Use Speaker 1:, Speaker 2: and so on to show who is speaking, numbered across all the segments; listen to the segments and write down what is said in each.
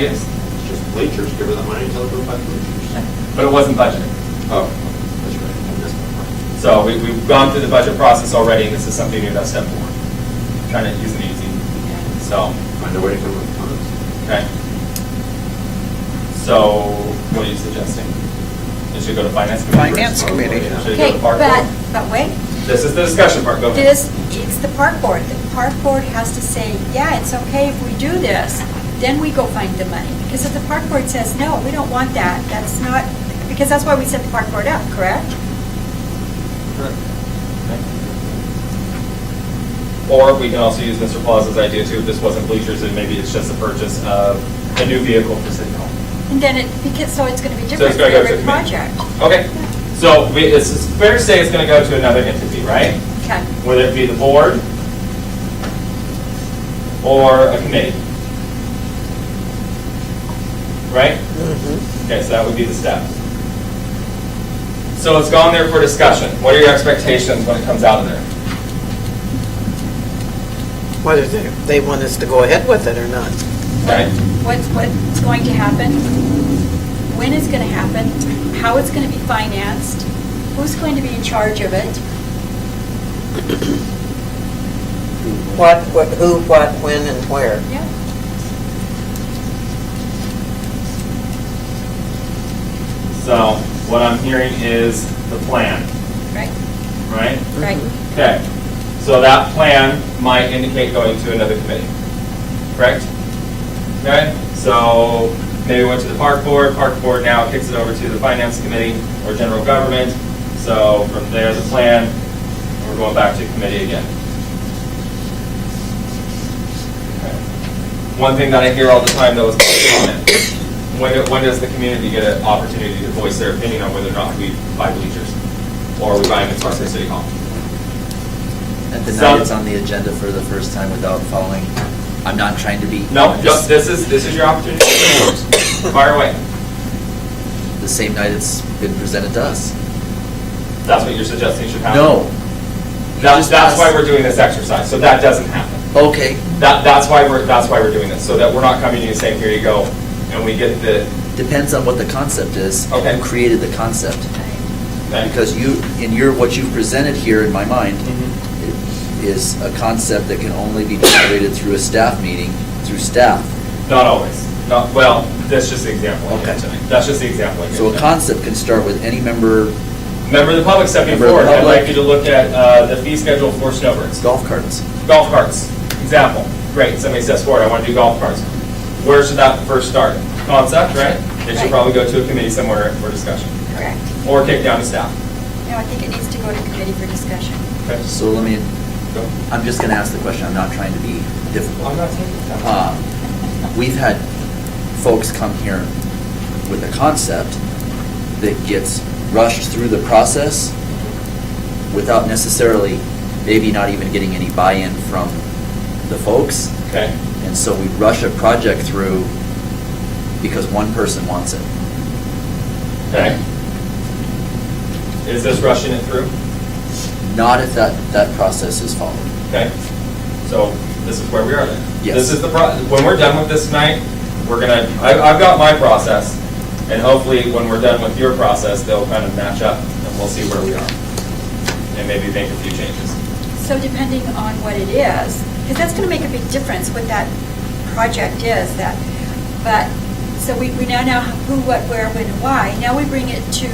Speaker 1: Yes,
Speaker 2: It's just bleachers, give her the money, tell her to go buy bleachers.
Speaker 1: but it wasn't budgeted.
Speaker 2: Oh, that's right. I missed that
Speaker 1: So we, we've gone through the budget process already, and this is something new that's step forward. Trying to use it easy, so,
Speaker 2: part. Find a way to come up with funds.
Speaker 1: okay. So, what are you suggesting? It should go to finance committee?
Speaker 3: Finance
Speaker 1: first?
Speaker 3: committee.
Speaker 1: Should it go
Speaker 4: Okay,
Speaker 1: to park
Speaker 4: but,
Speaker 1: board?
Speaker 4: but wait,
Speaker 1: This is the discussion part, go ahead.
Speaker 4: this, it's the park board. The park board has to say, yeah, it's okay if we do this, then we go find the money. Because if the park board says, no, we don't want that, that's not, because that's why we set the park board up, correct?
Speaker 1: Or we can also use Mr. Plaza's idea too, if this wasn't bleachers, and maybe it's just a purchase of a new vehicle for City Hall.
Speaker 4: And then it, because, so it's gonna be
Speaker 1: So it's
Speaker 4: different for
Speaker 1: gonna go to
Speaker 4: every
Speaker 1: the
Speaker 4: project.
Speaker 1: committee. Okay, so we, it's it's fair to say it's gonna go to another entity, right?
Speaker 4: Okay,
Speaker 1: Whether it be the board or a committee. Right? Okay, so that would be the step. So it's gone there for discussion. What are your expectations when it comes out of there?
Speaker 3: Whether they they want us to go ahead with it or not.
Speaker 1: Right.
Speaker 4: what, what's going to happen? When it's gonna happen? How it's gonna be financed? Who's going to be in charge of it?
Speaker 3: What, what- who, what, when, and where.
Speaker 4: Yeah.
Speaker 1: So what I'm hearing is the plan,
Speaker 4: Right,
Speaker 1: right?
Speaker 4: right.
Speaker 1: Okay, so that plan might indicate going to another committee, correct? Okay, so maybe went to the park board, park board now kicks it over to the finance committee or general government. So from there, the plan, we're going back to committee again. Okay. One thing that I hear all the time though is public comment. When, do- when does the community get an opportunity to voice their opinion on whether or not we buy bleachers? Or we buy them at Sparks City Hall?
Speaker 5: At the
Speaker 1: Some-
Speaker 5: night it's on the agenda for the first time without following, I'm not trying to be.
Speaker 1: No, no,
Speaker 5: I'm just-
Speaker 1: this is, this is your opportunity. Fire away.
Speaker 5: The same night it's been presented to us.
Speaker 1: That's what you're suggesting should happen?
Speaker 5: No.
Speaker 1: That's, that's why we're doing this exercise, so that doesn't happen.
Speaker 5: Okay,
Speaker 1: That, that's why we're, that's why we're doing this, so that we're not coming to you and saying, here you go, and we get the,
Speaker 5: depends on what the concept is.
Speaker 1: Okay.
Speaker 5: Who created the concept?
Speaker 1: Mm-hmm. okay.
Speaker 5: Because you, in your, what you've presented here in my mind
Speaker 1: Mhm.
Speaker 5: i- is a concept that can only be generated through a staff meeting, through staff.
Speaker 1: Not always, not, well, that's just the example I gave
Speaker 5: Okay.
Speaker 1: tonight, that's just the example I gave
Speaker 5: So a
Speaker 1: tonight.
Speaker 5: concept can start with any member
Speaker 1: Member of the public stepping
Speaker 5: Member of the
Speaker 1: forward, I'd like
Speaker 5: public.
Speaker 1: you to look at, uh, the fee schedule for snowbirds.
Speaker 5: golf carts.
Speaker 1: Golf carts, example. Great, somebody says forward, I want to do golf carts. Where should that first start? Concept, right? It should
Speaker 4: Right.
Speaker 1: probably go to a committee somewhere for discussion,
Speaker 4: Correct.
Speaker 1: or kick down to staff.
Speaker 4: No, I think it needs to go to committee for discussion.
Speaker 1: Okay, just
Speaker 5: So let me,
Speaker 1: go.
Speaker 5: I'm just gonna ask the question, I'm not trying to be difficult.
Speaker 1: I'm not taking that.
Speaker 5: Um, We've had folks come here with a concept that gets rushed through the process without necessarily, maybe not even getting any buy-in from the folks.
Speaker 1: Okay,
Speaker 5: And so we rush a project through because one person wants it.
Speaker 1: okay. Is this rushing it through?
Speaker 5: Not if that, that process is followed.
Speaker 1: Okay, so this is where we are then.
Speaker 5: Yes.
Speaker 1: This is the, pro- when we're done with this tonight, we're gonna, I- I've got my process, and hopefully when we're done with your process, they'll kind of match up, and we'll see where we are. And maybe make a few changes.
Speaker 4: So depending on what it is, because that's going to make a big difference what that project is, that, but, so we, we now know who, what, where, when, and why. Now we bring it to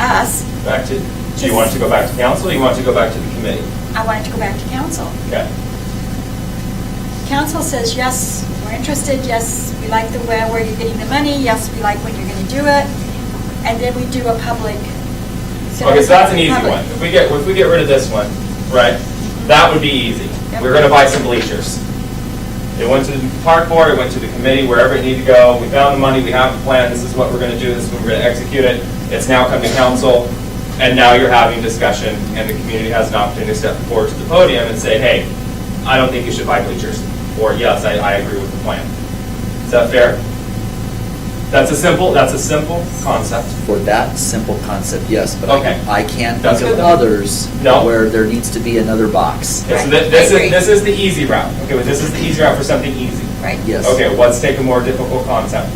Speaker 4: us.
Speaker 1: Back to, do you want it to go back to council, or you want it to go back to the committee?
Speaker 4: I want it to go back to council.
Speaker 1: Okay,
Speaker 4: Council says, yes, we're interested, yes, we like the way, where you're getting the money, yes, we like when you're going to do it. And then we do a public.
Speaker 1: okay, so that's an easy
Speaker 4: Public.
Speaker 1: one. If we get, if we get rid of this one, right, that would be easy.
Speaker 4: Yep.
Speaker 1: We're gonna buy some bleachers. It went to the park board, it went to the committee, wherever it needed to go, we found the money, we have a plan, this is what we're gonna do, this is when we're gonna execute it. It's now come to council, and now you're having discussion, and the community has an opportunity to step forward to the podium and say, hey, I don't think you should buy bleachers, or yes, I, I agree with the plan. Is that fair? That's a simple, that's a simple concept.
Speaker 5: For that simple concept, yes, but
Speaker 1: Okay.
Speaker 5: I- I can't
Speaker 1: That's
Speaker 5: think
Speaker 1: good
Speaker 5: of
Speaker 1: though.
Speaker 5: others
Speaker 1: No.
Speaker 5: where there needs to be another box.
Speaker 1: Okay, so
Speaker 4: Right,
Speaker 1: thi-
Speaker 4: I
Speaker 1: this is,
Speaker 4: agree.
Speaker 1: this is the easy route. Okay, but this is the easy route for something easy.
Speaker 4: right?
Speaker 5: Yes.
Speaker 1: Okay, let's take a more difficult concept.